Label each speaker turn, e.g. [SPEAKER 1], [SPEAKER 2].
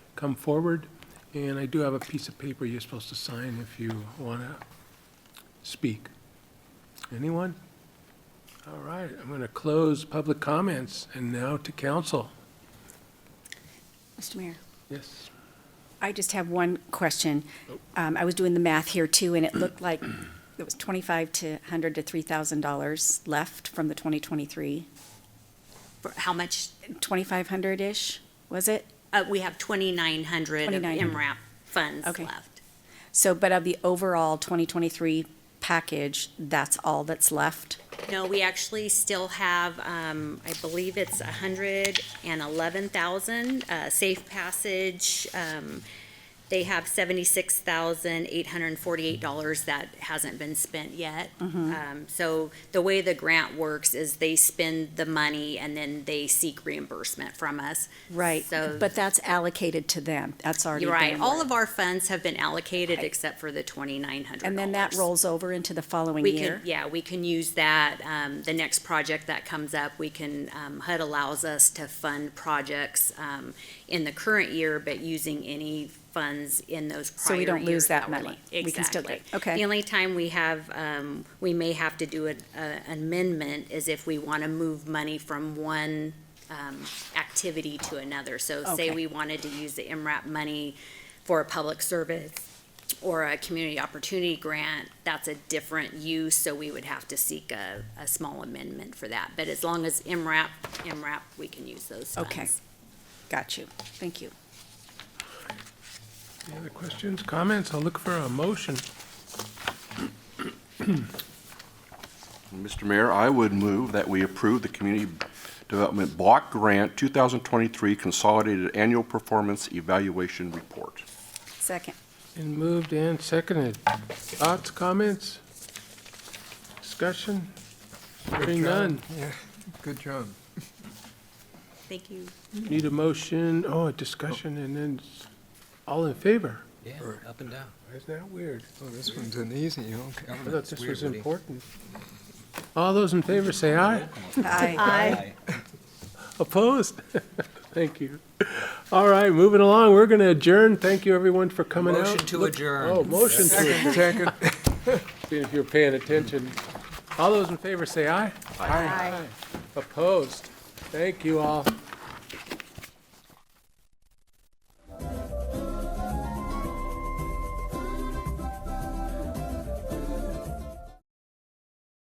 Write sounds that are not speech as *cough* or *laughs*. [SPEAKER 1] come forward, and I do have a piece of paper you're supposed to sign if you want to speak. Anyone? All right, I'm going to close public comments, and now to council.
[SPEAKER 2] Mr. Mayor,
[SPEAKER 1] Yes,
[SPEAKER 2] I just have one question. Um, I was doing the math here too, and it looked like it was twenty-five to hundred to three thousand dollars left from the twenty twenty-three.
[SPEAKER 3] For how much?
[SPEAKER 2] Twenty-five hundred-ish, was it?
[SPEAKER 3] Uh, we have twenty-nine hundred of
[SPEAKER 2] 2,900.
[SPEAKER 3] MRAP funds
[SPEAKER 2] Okay.
[SPEAKER 3] left.
[SPEAKER 2] So, but of the overall twenty twenty-three package, that's all that's left?
[SPEAKER 3] No, we actually still have, um, I believe it's a hundred and eleven thousand, uh, Safe Passage. Um, they have seventy-six thousand eight hundred and forty-eight dollars that hasn't been spent yet.
[SPEAKER 2] Mm-hmm.
[SPEAKER 3] Um, so the way the grant works is they spend the money and then they seek reimbursement from us.
[SPEAKER 2] Right,
[SPEAKER 3] So-
[SPEAKER 2] but that's allocated to them. That's already
[SPEAKER 3] You're right,
[SPEAKER 2] been.
[SPEAKER 3] all of our funds have been allocated
[SPEAKER 2] Right.
[SPEAKER 3] except for the twenty-nine hundred dollars.
[SPEAKER 2] And then that rolls over into the following
[SPEAKER 3] We can,
[SPEAKER 2] year?
[SPEAKER 3] yeah, we can use that, um, the next project that comes up, we can, um, HUD allows us to fund projects, um, in the current year, but using any funds in those
[SPEAKER 2] So
[SPEAKER 3] prior
[SPEAKER 2] we
[SPEAKER 3] years.
[SPEAKER 2] don't lose that
[SPEAKER 3] were
[SPEAKER 2] money.
[SPEAKER 3] left.
[SPEAKER 2] We can still get-
[SPEAKER 3] Exactly.
[SPEAKER 2] okay.
[SPEAKER 3] The only time we have, um, we may have to do an a- amendment is if we wanna move money from one, um, activity to another. So say
[SPEAKER 2] Okay.
[SPEAKER 3] we wanted to use the MRAP money for a public service, or a community opportunity grant, that's a different use, so we would have to seek a, a small amendment for that. But as long as MRAP, MRAP, we can use those funds.
[SPEAKER 2] Okay. Got you. Thank you.
[SPEAKER 1] any other questions, comments? I'll look for a motion.
[SPEAKER 4] Mr. Mayor, I would move that we approve the Community Development Block Grant 2023 Consolidated Annual Performance Evaluation Report.
[SPEAKER 2] Second.
[SPEAKER 1] And moved and seconded. Thoughts, comments? Discussion? Hearing none.
[SPEAKER 5] Yeah, good job.
[SPEAKER 3] Thank you.
[SPEAKER 1] Need a motion, oh, a discussion, and then s- all in favor?
[SPEAKER 6] Yeah,
[SPEAKER 5] Or-
[SPEAKER 6] up and down.
[SPEAKER 1] Isn't that weird?
[SPEAKER 5] Oh, this one's an easy, okay.
[SPEAKER 1] I thought this was important. All those in favor say aye.
[SPEAKER 2] Aye.
[SPEAKER 1] Opposed? *laughs* Thank you. All right, moving along, we're going to adjourn. Thank you, everyone, for coming out.
[SPEAKER 6] Motion to
[SPEAKER 1] Look-
[SPEAKER 6] adjourn.
[SPEAKER 1] Oh, motion to adjourn,
[SPEAKER 5] Second.
[SPEAKER 1] *laughs* if you're paying attention. All those in favor say aye.
[SPEAKER 2] Aye.
[SPEAKER 1] Opposed? Thank you all.